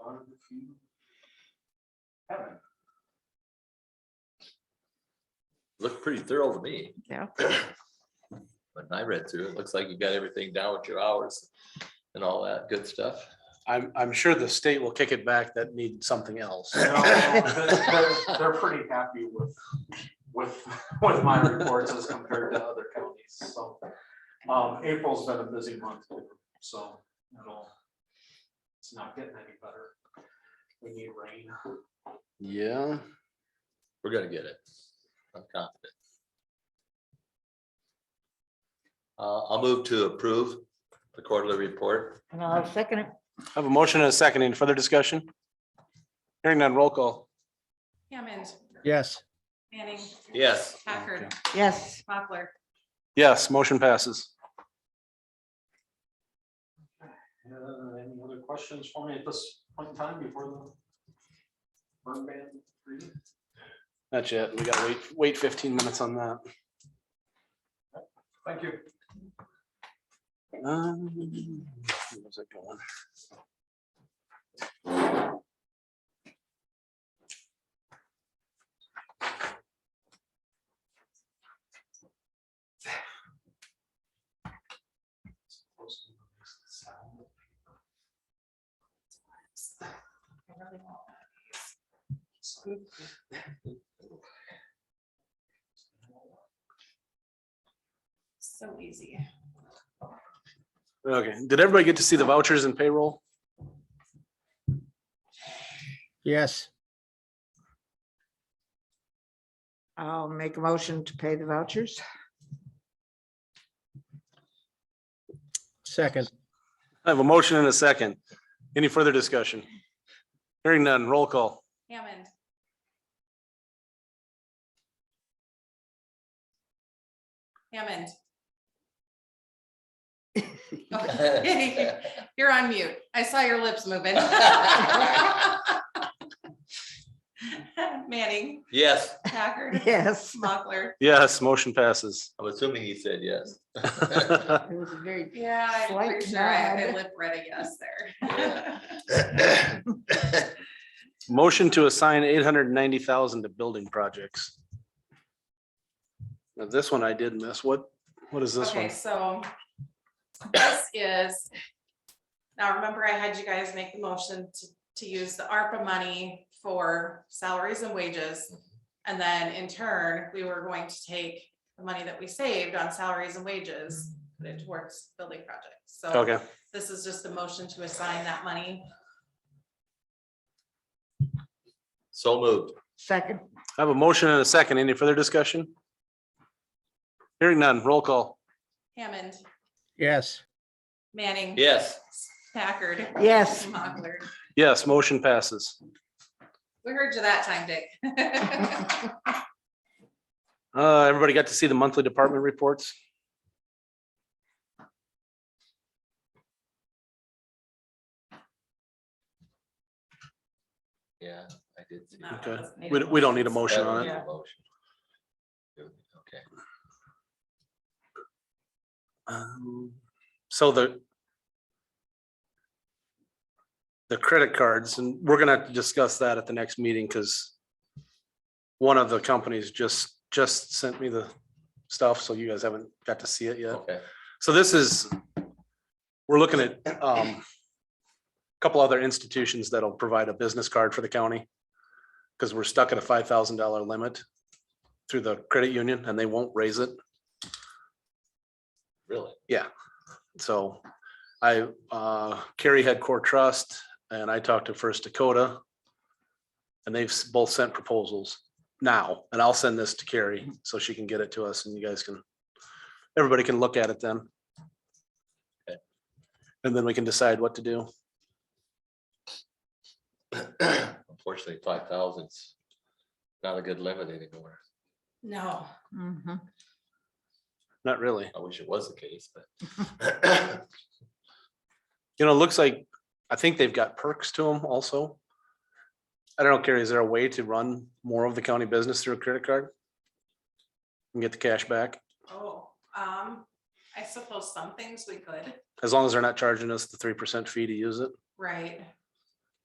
Looked pretty thorough to me. Yeah. When I read through it, looks like you got everything down with your hours and all that good stuff. I'm, I'm sure the state will kick it back that need something else. No, They're they're pretty happy with, with, with my reports as compared to other counties, so. Um, April's been a busy month, so it'll, it's not getting any better. We need rain. Yeah, We're gonna get it. I'm confident. Uh, I'll move to approve the quarterly report. And I'll second it. I have a motion and a second. Any further discussion? Hearing none, roll call. Hammond, yes, Manning, Yes, Packard, Yes, Mochler. Yes, motion passes. Uh, Any other questions for me at this point in time before the burn ban? reading? That's it. We gotta wait, wait fifteen minutes on that. Thank you. Um, where's it going? So easy. Okay, did everybody get to see the vouchers and payroll? yes, I'll make a motion to pay the vouchers. second, I have a motion and a second. Any further discussion? Hearing none, roll call. Hammond, Hammond. Okay. You're on mute. I saw your lips moving. Manning, yes. Packard, Yes, Mochler. Yes, motion passes. I'm assuming he said yes. it was a very, Yeah, I'm Slight pretty sure I I nod. lip read a yes Yeah. there. Motion to assign eight hundred and ninety thousand to building projects. Now, this one I did miss. What, what is this Okay, one? so this is, now remember I had you guys make the motion to, to use the ARPA money for salaries and wages. And then in turn, we were going to take the money that we saved on salaries and wages, put it towards building projects. So Okay, this is just a motion to assign that money. So moved. second, I have a motion and a second. Any further discussion? Hearing none, roll call. Hammond, yes, Manning. Yes. Packard. Yes. Mochler. Yes, motion passes. We heard you that time, Dick. Uh, everybody got to see the monthly department reports? Yeah, I did. see No, that. it Okay. doesn't need a We, we don't need a I motion don't on need it. a motion. Okay. Um, So the the credit cards, and we're gonna have to discuss that at the next meeting, because one of the companies just, just sent me the stuff, so you guys haven't got to see it yet. Okay. So this is, we're looking at um, a couple other institutions that'll provide a business card for the county. Because we're stuck at a five thousand dollar limit through the credit union and they won't raise it. Really? So I, uh, Kerry had Core Trust and I talked to First Dakota. And they've s- both sent proposals now, and I'll send this to Carrie so she can get it to us and you guys can, everybody can look at it then. Okay. And then we can decide what to do. Unfortunately, five thousand's not a good limit anymore. No. Mhm. Not really. I wish it was the case, but. You know, it looks like, I think they've got perks to them also. I don't know, Carrie, is there a way to run more of the county business through a credit card? And get the cash back, Oh, um, I suppose some things we could, as long as they're not charging us the three percent fee to use it. right?